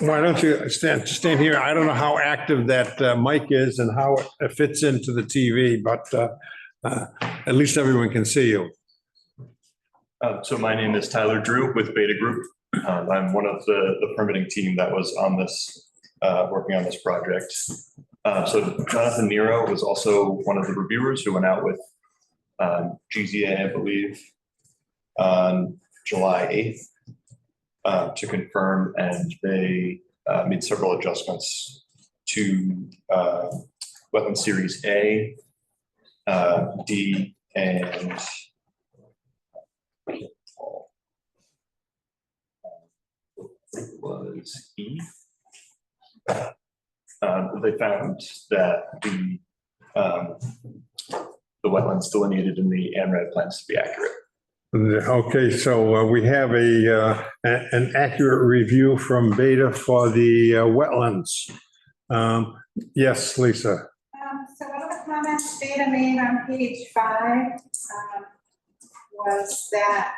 Why don't you stand, stand here? I don't know how active that uh, mic is and how it uh, fits into the TV, but uh, uh, at least everyone can see you. Uh, So my name is Tyler Drew with Beta Group. Uh, I'm one of the the permitting team that was on this, uh, working on this project. Uh, So Jonathan Nero was also one of the reviewers who went out with um, GZA, I believe, on July 8th uh, to confirm, and they uh, made several adjustments to uh, wetland series A, uh, D, and was E. Um, They found that the, um, the wetlands delineated in the ANRAD plans to be accurate. Okay, so uh, we have a, uh, a- an accurate review from Beta for the uh, wetlands. Um, Yes, Lisa. Um, So one of the comments Beta made on page five um, was that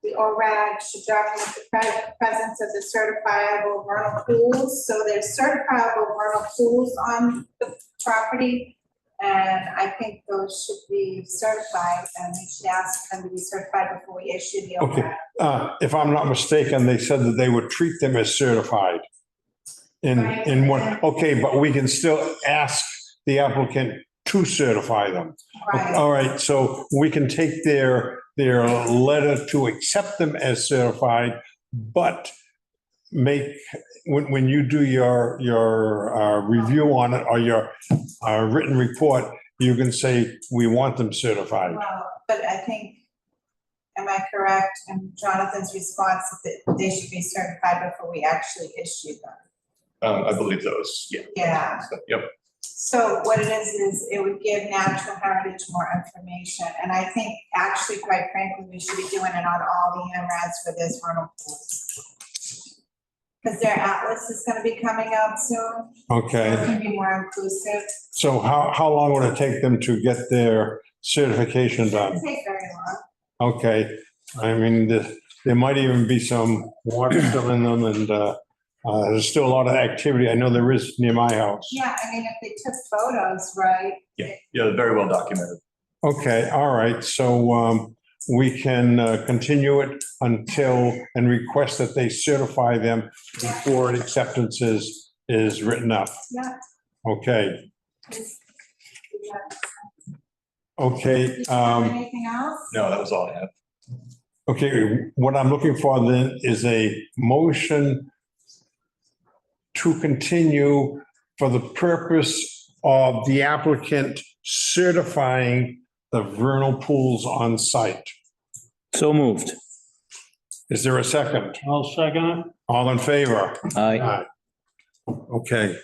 the ORAD should document the pre- presence of the certifiable vernal pools. So there's certifiable vernal pools on the property. And I think those should be certified and we should ask them to be certified before we issue the Okay. ORAD. Uh, If I'm not mistaken, they said that they would treat them as certified. In, in one, okay, but we can still ask the applicant to certify them. Right. All right, so we can take their, their letter to accept them as certified, but make, when, when you do your, your uh, review on it or your uh, written report, you can say, we want them certified. Well, but I think, am I correct in Jonathan's response that they should be certified before we actually issue them? Um, I believe those, yeah. Yeah, So, Yep, so what it is, is it would give natural heritage more information, and I think actually, quite frankly, we should be doing it on all the MRADs for this vernal pools. Because their atlas is gonna be coming out soon, so it Okay, can be more inclusive, so how, how long would it take them to get their certification done? doesn't take very long. Okay, I mean, the- there might even be some water still in them and uh, uh, there's still a lot of activity. I know there is near my house. Yeah, I mean, if they took photos, right, yeah, very well documented. Okay, all right, so um, we can uh, continue it until, and request that they certify them before an acceptance is, is written up. yeah. Okay, it's- yeah. okay, Did you have um, Anything else? No, that was all I had. okay, what I'm looking for then is a motion to continue for the purpose of the applicant certifying the vernal pools on site. So moved. Is there a second? I'll second it. All in favor? Aye. Okay.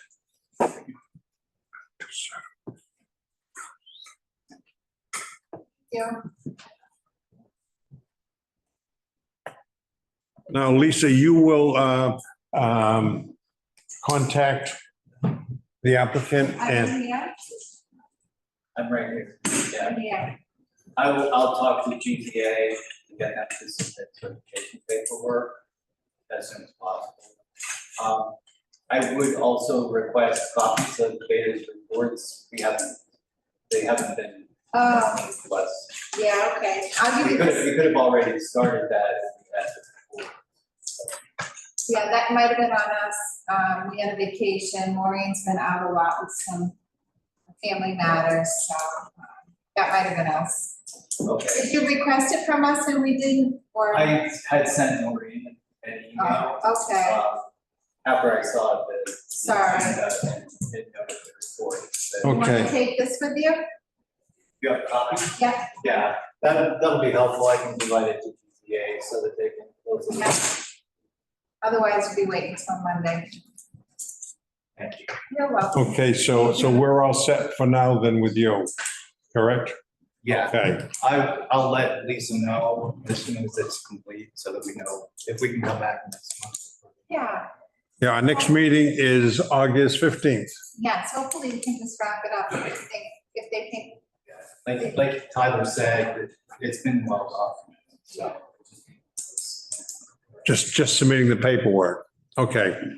Yeah. Now, Lisa, you will uh, um, contact the applicant and, I'm here, I'm right here. Yeah, I'm here. I will, I'll talk to GTA and get that to submit certification paperwork as soon as possible. Um, I would also request copies of Beta's reports. We haven't, they haven't been Oh, to us. yeah, okay. I'll We give you could, this. we could have already started that if we had to. Yeah, that might have been on us. Um, we had a vacation. Maureen's been out a lot with some family matters, so um, that might have been us. Okay. Did you request it from us and we didn't, or? I had sent Maureen an email, Oh, okay. um, after I saw the. Sorry. And didn't notice the report. but- You want Okay. to take this with you? You have copies? Yeah. Yeah, that, that'll be helpful, I can provide it to GZA so that they can close it. Yeah. Otherwise, we'll be waiting till Monday. Thank you. You're welcome. okay, so, so we're all set for now then with you, correct? Yeah, Okay, I, I'll let Lisa know as soon as it's complete, so that we know if we can come back next month. Yeah, yeah, our next meeting is August 15th. yes, hopefully we can just wrap it up if they, if they think Like, like Tyler said, it's been well documented, so. Just, just submitting the paperwork. Okay.